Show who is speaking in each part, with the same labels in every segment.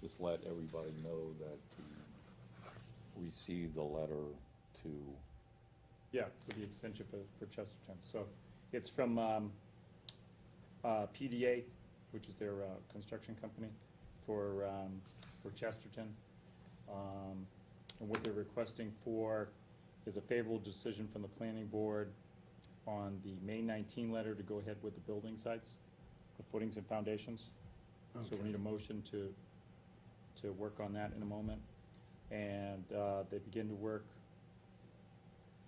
Speaker 1: just let everybody know that we received a letter to,
Speaker 2: Yeah, for the extension for, for Chesterton. So it's from, um, uh, PDA, which is their, uh, construction company for, um, for Chesterton. Um, and what they're requesting for is a favorable decision from the planning board on the May nineteen letter to go ahead with the building sites, the footings and foundations. So we need a motion to, to work on that in a moment. And, uh, they begin to work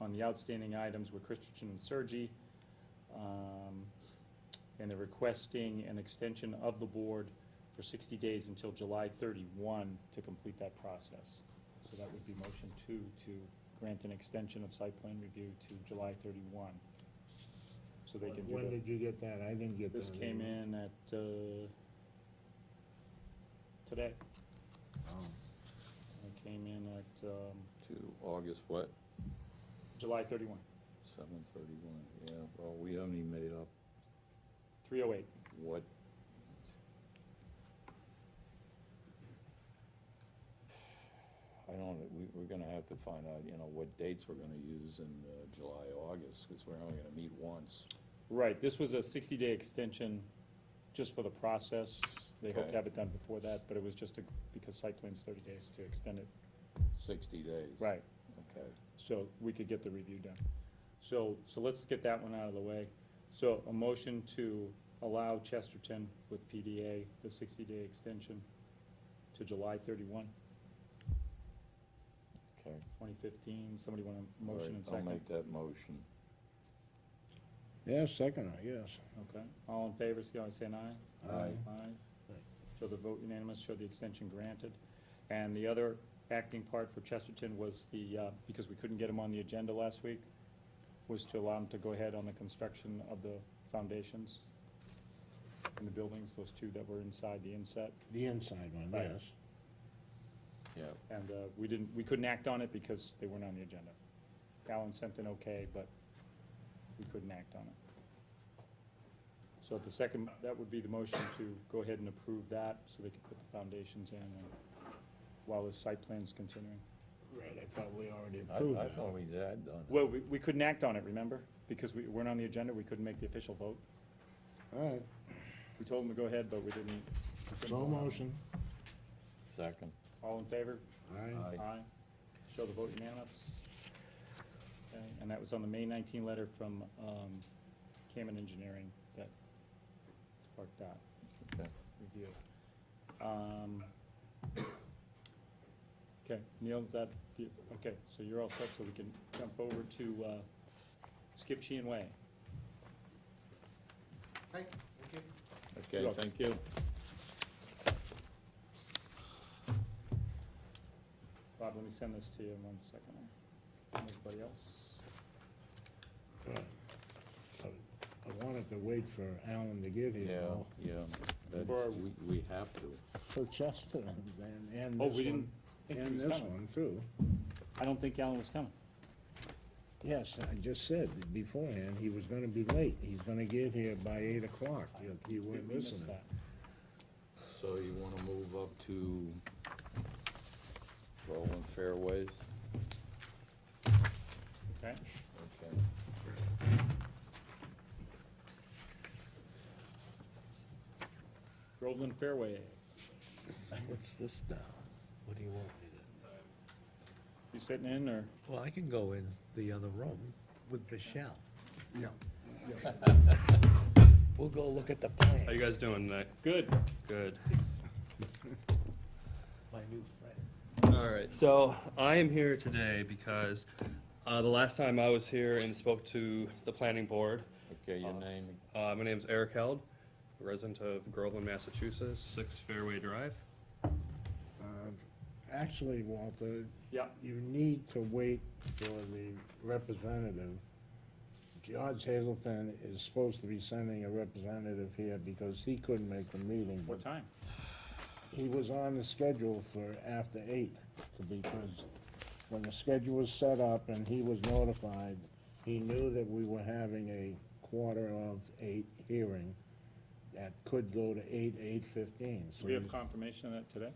Speaker 2: on the outstanding items with Christensen and Sergi. um, And they're requesting an extension of the board for sixty days until July thirty-one to complete that process. So that would be motion two, to grant an extension of site plan review to July thirty-one. So they can do
Speaker 3: When
Speaker 2: that.
Speaker 3: did you get that? I didn't get that.
Speaker 2: This came in at, uh, today. It came in at, um,
Speaker 1: to August, what,
Speaker 2: July thirty-one,
Speaker 1: seven thirty-one? Yeah, well, we haven't even made up
Speaker 2: three oh eight.
Speaker 1: what. I don't, we, we're gonna have to find out, you know, what dates we're gonna use in, uh, July, August, because we're only gonna meet once.
Speaker 2: Right, this was a sixty-day extension just for the process. They hope
Speaker 1: Okay.
Speaker 2: to have it done before that, but it was just to- because site plan's thirty days to extend it.
Speaker 1: Sixty days.
Speaker 2: Right,
Speaker 1: Okay.
Speaker 2: so we could get the review done. So, so let's get that one out of the way. So a motion to allow Chesterton with PDA the sixty-day extension to July 31,
Speaker 1: Okay.
Speaker 2: 2015. Somebody want a motion and
Speaker 1: All right, I'll
Speaker 2: second?
Speaker 1: make that motion.
Speaker 3: Yeah, second, I guess.
Speaker 2: Okay, all in favor, say aye, say an aye.
Speaker 1: Aye.
Speaker 2: Aye. Show the vote unanimous, show the extension granted. And the other acting part for Chesterton was the, uh, because we couldn't get him on the agenda last week, was to allow him to go ahead on the construction of the foundations in the buildings, those two that were inside the inset.
Speaker 3: The inside one,
Speaker 2: Right.
Speaker 3: yes.
Speaker 1: Yeah,
Speaker 2: And uh, we didn't, we couldn't act on it because they weren't on the agenda. Alan sent an okay, but we couldn't act on it. So the second, that would be the motion to go ahead and approve that, so they could put the foundations in and- while the site plan's continuing.
Speaker 3: Right, I thought we already
Speaker 1: I,
Speaker 3: approved
Speaker 1: I
Speaker 3: that.
Speaker 1: thought we had done it.
Speaker 2: Well, we, we couldn't act on it, remember? Because we weren't on the agenda, we couldn't make the official vote.
Speaker 3: All right,
Speaker 2: We told them to go ahead, but we didn't. we couldn't
Speaker 3: so
Speaker 2: vote on it.
Speaker 3: motion.
Speaker 1: Second.
Speaker 2: All in favor?
Speaker 3: Aye.
Speaker 1: Aye.
Speaker 2: Aye. Show the vote unanimous. Okay, And that was on the May 19 letter from um, Kamen Engineering that sparked that
Speaker 1: Okay.
Speaker 2: review. Um, Okay, Neil, is that, the- okay, so you're all set, so we can jump over to uh, Skip Sheehan Way.
Speaker 4: Hi, thank you.
Speaker 1: Okay,
Speaker 2: Look.
Speaker 1: thank you.
Speaker 2: Bob, let me send this to you in one second. Anybody else?
Speaker 3: I wanted to wait for Alan to get here.
Speaker 1: Yeah,
Speaker 3: though.
Speaker 1: yeah,
Speaker 2: Or-
Speaker 1: that's, we, we have to.
Speaker 3: For Chesterton's and, and
Speaker 2: Oh,
Speaker 3: this
Speaker 2: we didn't
Speaker 3: one.
Speaker 2: think he
Speaker 3: And
Speaker 2: was
Speaker 3: this
Speaker 2: coming.
Speaker 3: one too.
Speaker 2: I don't think Alan was coming.
Speaker 3: Yes, I just said beforehand, he was gonna be late. He's gonna get here by eight o'clock. You- You
Speaker 2: We
Speaker 3: weren't
Speaker 2: we missed
Speaker 3: listening.
Speaker 2: that.
Speaker 1: So you wanna move up to Rolling Fairways?
Speaker 2: Okay,
Speaker 1: Okay.
Speaker 2: Groveland Fairways.
Speaker 5: What's this now? What do you want me to?
Speaker 2: You sitting in, or?
Speaker 5: Well, I can go in the other room with Michelle.
Speaker 3: Yeah.
Speaker 5: We'll go look at the
Speaker 6: How
Speaker 5: plan.
Speaker 6: you guys doing tonight?
Speaker 2: Good.
Speaker 6: Good.
Speaker 5: My new friend.
Speaker 6: All right. So I am here today because uh, the last time I was here and spoke to the planning board,
Speaker 1: Okay, your name,
Speaker 6: uh, my name's Eric Held, resident of Groveland, Massachusetts, Six Fairway Drive.
Speaker 3: Uh, Actually, Walter,
Speaker 2: Yeah.
Speaker 3: you need to wait for the representative. George Hazelton is supposed to be sending a representative here because he couldn't make the meeting.
Speaker 2: What time?
Speaker 3: He was on the schedule for after eight, to- because when the schedule was set up and he was notified, he knew that we were having a quarter of eight hearing that could go to eight, eight fifteen.
Speaker 2: Do we have confirmation of that today?